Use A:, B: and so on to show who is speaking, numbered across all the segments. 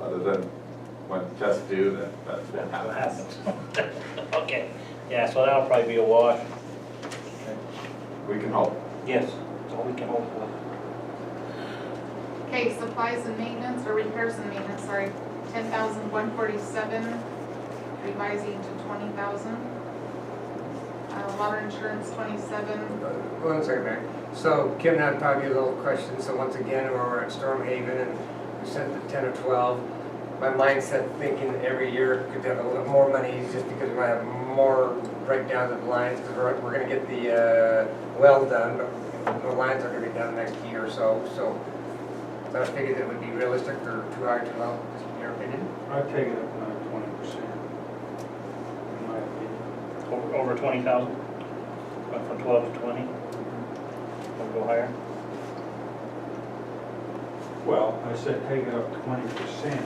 A: other than when tests due, that, that's what happens.
B: Okay, yeah, so that'll probably be a wash.
A: We can hope.
B: Yes, that's all we can hope for.
C: Okay, supplies and maintenance, or repairs and maintenance, sorry, ten thousand one forty-seven, revising to twenty thousand. Uh, water insurance twenty-seven,
D: Uh, One second, Mary. So Kim and I probably a little question, so once again, we're at Storm Haven and we sent the ten or twelve. My mindset thinking that every year could have a little more money just because we might have more breakdowns of lines, because we're, we're gonna get the, uh, well done, but the lines are gonna be done next year or so, so. So I figured it would be realistic for two hour, too low, just in your opinion.
E: I'd take it up another twenty percent, in my opinion.
B: Over, over twenty thousand? Went from twelve to twenty? Wanna go higher?
E: Well, I said take it up twenty percent.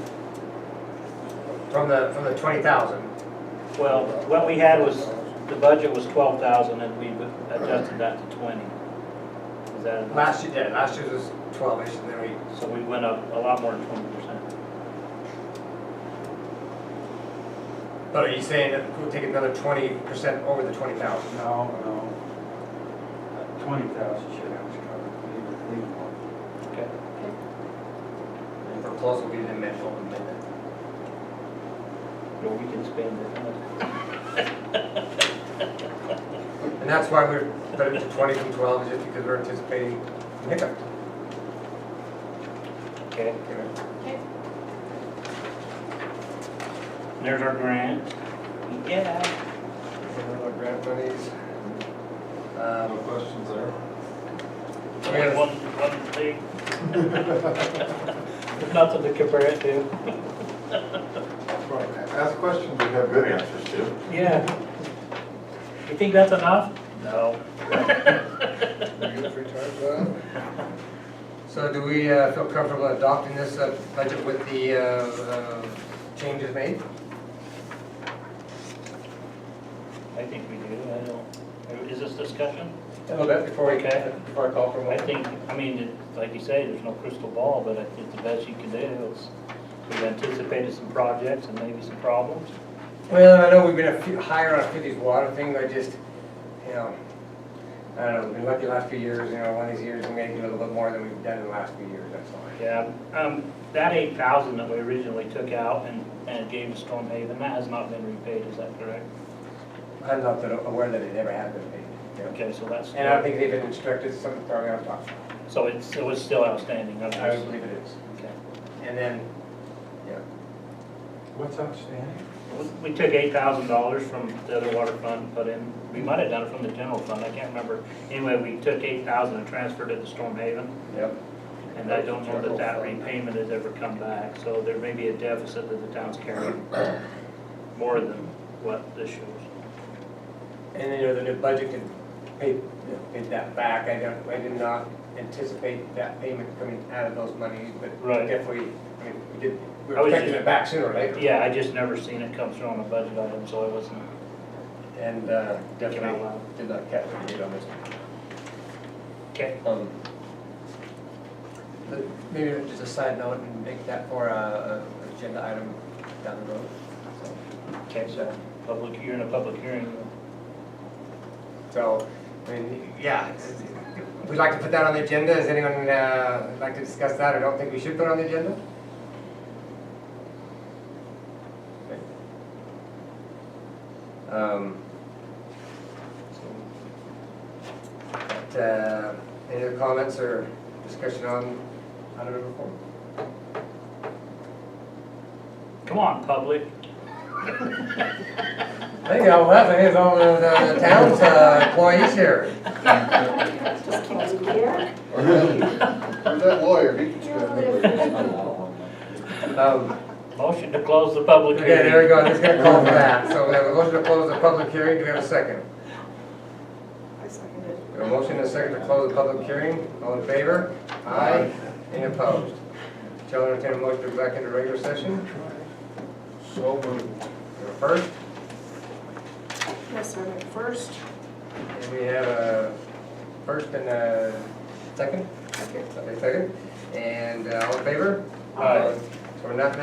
D: From the, from the twenty thousand.
B: Well, what we had was, the budget was twelve thousand and we adjusted that to twenty. Is that enough?
D: Last year, yeah, last year was twelve-ish and then we
B: So we went up a lot more than twenty percent.
D: But are you saying that we'll take another twenty percent over the twenty thousand?
E: No, no. Twenty thousand should have us covered, maybe, maybe more.
B: Okay.
D: And proposal will be the middle of the minute.
B: Well, we can spend it.
D: And that's why we're, but it's twenty from twelve, is just because we're anticipating hiccup.
B: Okay,
D: Okay.
C: okay,
B: there's our grant. Yeah.
D: Our grant monies.
A: No
D: Um,
A: questions there?
D: We have-
B: One, one thing. There's Nothing to compare it to.
A: Ask questions we have good answers to.
B: Yeah. You think that's enough? No.
D: So do we uh, feel comfortable adopting this uh, budget with the uh, uh, changes made?
B: I think we do, I don't, is this discussion?
D: A little bit before we,
B: Okay.
D: before I call for a
B: I
D: vote.
B: think, I mean, it- like you say, there's no crystal ball, but I think the best you can do is, we've anticipated some projects and maybe some problems.
D: Well, I know we've been a few, higher on Philly's water thing, I just, you know, I don't know, we've been lucky the last few years, you know, one of these years, we may do a little bit more than we've done in the last few years, that's all.
B: Yeah, um, that eight thousand that we originally took out and, and gave to Storm Haven, that has not been repaid, is that correct?
D: I'm not that aware that it ever had been paid. you know.
B: Okay, so that's,
D: And I don't think they've been instructed, some, probably I'm talking,
B: so it's, it was still outstanding, okay?
D: I would believe it is.
B: Okay.
D: And then, yeah,
E: What's outstanding?
B: We- We took eight thousand dollars from the other water fund, and put in, we might have done it from the general fund, I can't remember. Anyway, we took eight thousand and transferred it to Storm Haven,
D: yep,
B: and I don't know that that repayment has ever come back. So there may be a deficit that the town's carrying more than what this shows.
D: and then, you know, the new budget can pay, you know, pay that back, I don't, I did not anticipate that payment coming out of those monies, but
B: Right.
D: definitely, I mean, we did, we
B: I
D: we're
B: was
D: expecting
B: just-
D: it back sooner or later.
B: Yeah, I just never seen it come through on a budget item, so I wasn't,
D: And uh,
B: Thinking out
D: definitely
B: loud.
D: did not catch what you did on this.
B: okay,
D: Um, but Maybe just a side note and make that for uh, a a agenda item down the road. So-
B: okay, so public, you're in a public hearing.
D: So, I mean, yeah, it's- it's- we'd like to put that on the agenda. Does anyone uh, like to discuss that? I don't think we should put it on the agenda. Okay. Um, But, uh, any other comments or discussion on item number four?
B: Come on, public.
D: I think I left, I think it's all the, the town's uh, employees here.
F: Or that or that lawyer, he can spend
D: Um,
B: Motion to close the public
D: Okay,
B: hearing.
D: there we go, It's gonna call for that. So we have a motion to close the public hearing, do we have a second? We have a motion and a second to close the public hearing, all in favor? Aye. Any opposed? Shall entertain a motion to go back into regular session? So moved. First,
G: Yes, sir, first.
D: and we have a first and a second? Okay, somebody second, and uh, all in favor?
B: Aye.
D: So we're not